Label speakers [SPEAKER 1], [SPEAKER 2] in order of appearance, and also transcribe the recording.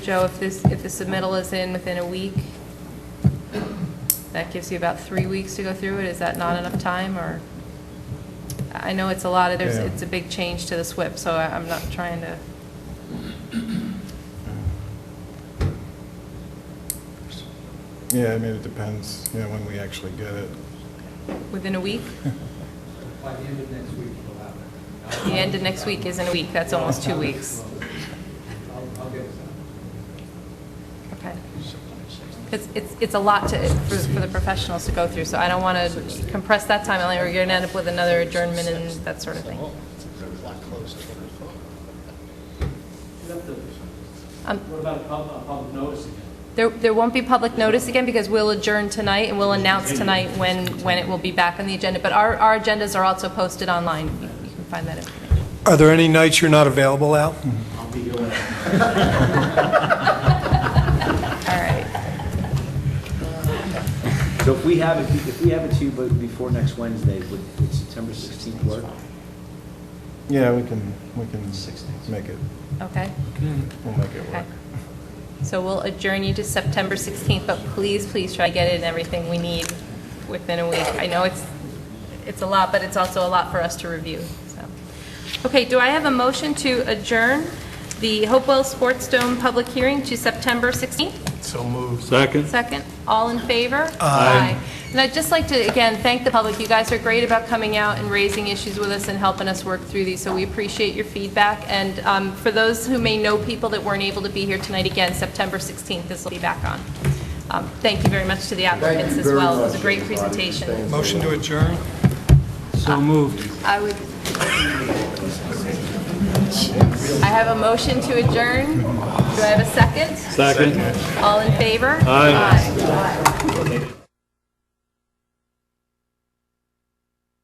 [SPEAKER 1] Joe, if this, if the submittal is in within a week, that gives you about three weeks to go through it. Is that not enough time, or? I know it's a lot of, there's,
[SPEAKER 2] Yeah.
[SPEAKER 1] it's a big change to the SWIP, so I- I'm not trying to,
[SPEAKER 2] Yeah, I mean, it depends, you know, when we actually get it.
[SPEAKER 1] within a week?
[SPEAKER 3] By the end of next week, we'll have it.
[SPEAKER 1] The end of next week isn't a week, that's almost two weeks.
[SPEAKER 3] I'll, I'll get this out.
[SPEAKER 1] Okay. Because it's, it's a lot to, for for the professionals to go through, so I don't want to compress that time, Elaine, or you're going to end up with another adjournment and that sort of thing.
[SPEAKER 3] You have to-
[SPEAKER 1] Um,
[SPEAKER 3] What about a public, a public notice again?
[SPEAKER 1] There, there won't be public notice again because we'll adjourn tonight and we'll announce tonight when, when it will be back on the agenda. But our, our agendas are also posted online. You you can find that information.
[SPEAKER 4] Are there any nights you're not available, Al?
[SPEAKER 1] All right.
[SPEAKER 5] So if we have it, if we have it to you but before next Wednesday, would would September 16th work?
[SPEAKER 2] Yeah, we can, we can make it,
[SPEAKER 1] Okay,
[SPEAKER 2] we'll make it
[SPEAKER 1] okay.
[SPEAKER 2] work.
[SPEAKER 1] So we'll adjourn you to September 16th, but please, please try to get in everything we need within a week. I know it's, it's a lot, but it's also a lot for us to review, so. Okay, do I have a motion to adjourn the Hopewell Sports Dome public hearing to September 16th?
[SPEAKER 4] So moved.
[SPEAKER 6] Second?
[SPEAKER 1] Second, all in favor? Aye. And I'd just like to, again, thank the public. You guys are great about coming out and raising issues with us and helping us work through these, so we appreciate your feedback. And um, for those who may know people that weren't able to be here tonight, again, September 16th, this will be back on. Um, Thank you very much to the applicants as well. It was a great presentation.
[SPEAKER 4] Motion to adjourn?
[SPEAKER 6] So moved.
[SPEAKER 1] I would... I have a motion to adjourn. Do I have a second?
[SPEAKER 6] Second?
[SPEAKER 1] All in favor? Aye.